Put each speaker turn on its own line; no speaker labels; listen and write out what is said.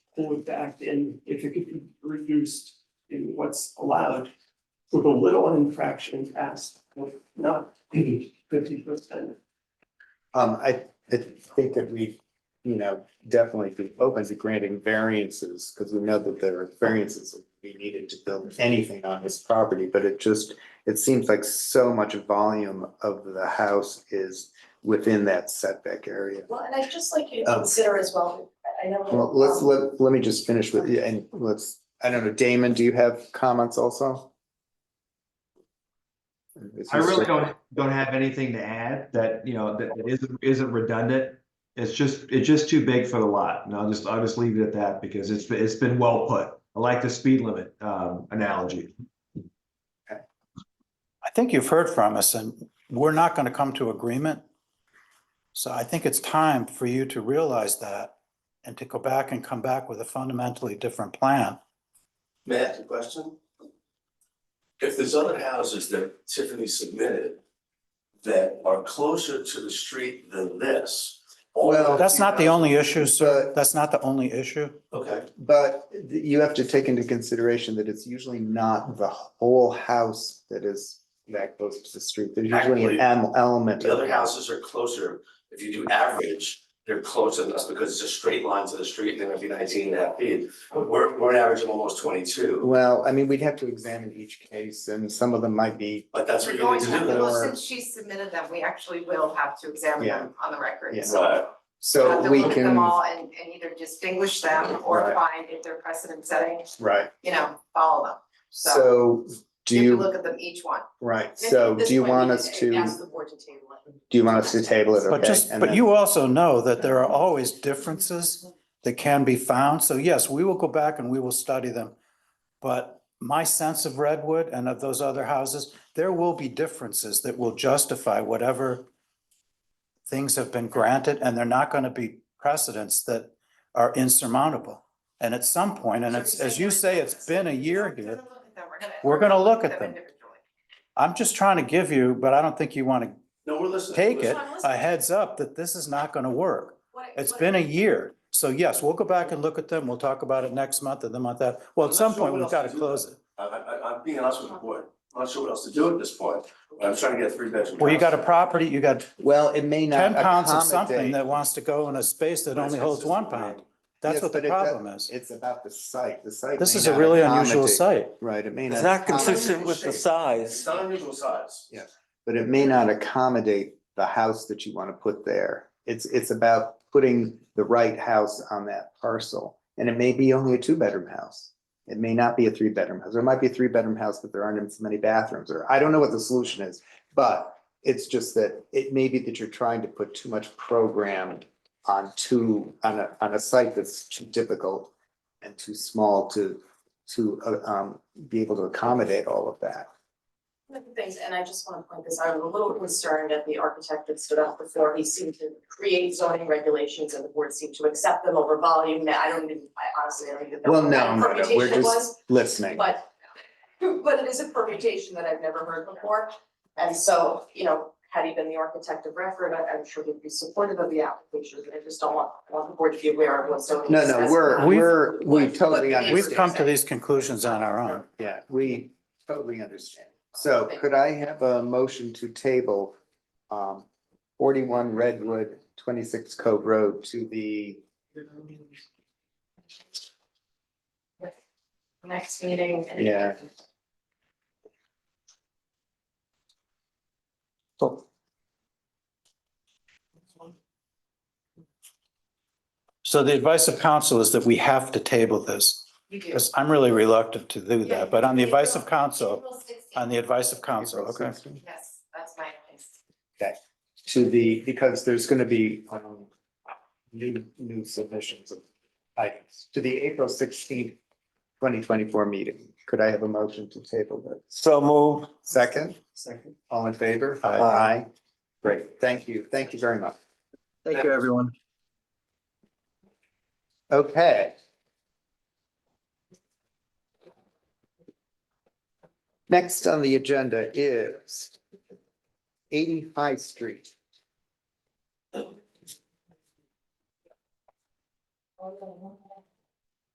pull it back in if it could be reduced in what's allowed. With a little infraction passed, with not fifty percent.
Um, I, I think that we, you know, definitely be open to granting variances, because we know that there are variances that we needed to build anything on this property, but it just, it seems like so much volume of the house is within that setback area.
Well, and I'd just like you to
Um,
consider as well, I I know.
Well, let's,
um,
let, let me just finish with, yeah, and let's, I don't know, Damon, do you have comments also?
I really don't, don't have anything to add that, you know, that that isn't, isn't redundant. It's just, it's just too big for the lot, and I'll just, I'll just leave it at that, because it's, it's been well put. I like the speed limit, um, analogy.
I think you've heard from us and we're not going to come to agreement. So I think it's time for you to realize that and to go back and come back with a fundamentally different plan.
May I ask a question? If there's other houses that Tiffany submitted that are closer to the street than this. all
Well,
That's not the only issue, sir.
But-
That's not the only issue.
Okay,
But you have to take into consideration that it's usually not the whole house that is that close to the street. There's usually an em- element.
the
of-
other houses are closer, if you do average, they're closer than us because it's a straight line to the street, and they're gonna be nineteen and a half feet. But we're, we're averaging almost twenty-two,
Well, I mean, we'd have to examine each case and some of them might be,
but that's what
We're
you
going
need
to,
to do.
well, since she submitted them, we actually will have to examine
Yeah.
them on the record,
Yeah.
so.
Right,
we'll
so we
Have to look at them
can,
all and, and either distinguish them or
Right.
find if they're precedent setting,
right.
you know, follow them. So
So do
you have to
you,
look at them each one.
right,
And I
so
think at
do you
this point,
want
we
us
can
to,
Ask the board to table it.
do you want us to table it?
But
Okay,
just,
and
but
then-
you also know that there are always differences that can be found. So yes, we will go back and we will study them. But my sense of Redwood and of those other houses, there will be differences that will justify whatever things have been granted, and they're not going to be precedents that are insurmountable. And at some point, and
So
it's,
you're
as
saying
you say,
we're gonna-
it's been a year
We're
here.
gonna look at them. We're gonna-
We're gonna look at them.
individually.
I'm just trying to give you, but I don't think you want to
no, we're listening.
take
We're
it,
listening.
a heads up that this is not going to work.
What I-
It's
what I-
been a year. So yes, we'll go back and look at them. We'll talk about it next month and the month after. Well,
I'm
at
not
some
sure
point,
what
we've
else
got to
to do.
close it.
I, I, I'm being honest with the board, I'm not sure what else to do at this point, I'm trying to get a three bedroom.
Well, you got a
house.
property, you got
Well, it may not
ten
accommodate.
pounds of something that wants to go in a space that
But
only
it's
holds one
consistent.
pound. That's
Yes,
what the
but it does-
problem is.
It's about the site, the site.
This
may
is a
not
really unusual
accommodate-
site.
Right, it may not.
It's not
accommodate-
consistent with the
It's
size.
not unusual size.
but it may not accommodate the house that you want to put there. It's, it's about putting the right house on that parcel. And it may be only a two-bedroom house. It may not be a three-bedroom house. There might be a three-bedroom house, but there aren't as many bathrooms, or I don't know what the solution is. But it's just that it may be that you're trying to put too much program on too, on a, on a site that's too difficult and too small to, to, uh, um, be able to accommodate all of that.
One of the things, and I just want to point this out, I'm a little concerned at the architect that stood up before, he seemed to create zoning regulations and the board seemed to accept them over volume, I don't even, I honestly don't even know
Well,
what
no, no,
that
no, we're
permutation was,
just listening.
but but it is a permutation that I've never heard before, and so, you know, had he been the architect of record, I- I'm sure he'd be supportive of the application, I just don't want, I want the board to be aware of what zoning.
No,
is
no,
as-
we're,
We've-
we're, we
We've-
totally
we've
understand.
We've come to these conclusions on our own.
Yeah, we totally understand. So could I have a motion to table um forty-one Redwood, twenty-six Cove Road to the,
Next meeting. and-
yeah.
So the advice of counsel is that we have to table this.
You do.
Because I'm really reluctant to do
Yeah.
that, but on the advice of counsel,
April 16th.
on the advice of counsel, okay.
Yes, that's my advice.
To the, because there's gonna be um new, new submissions of items to the April sixteenth, twenty twenty-four meeting. Could I have a motion to table that?
So moved.
Second? Second. All in favor?
Aye.
Great, thank you, thank you very much.
Thank you, everyone.
Okay. Next on the agenda is eighty High Street.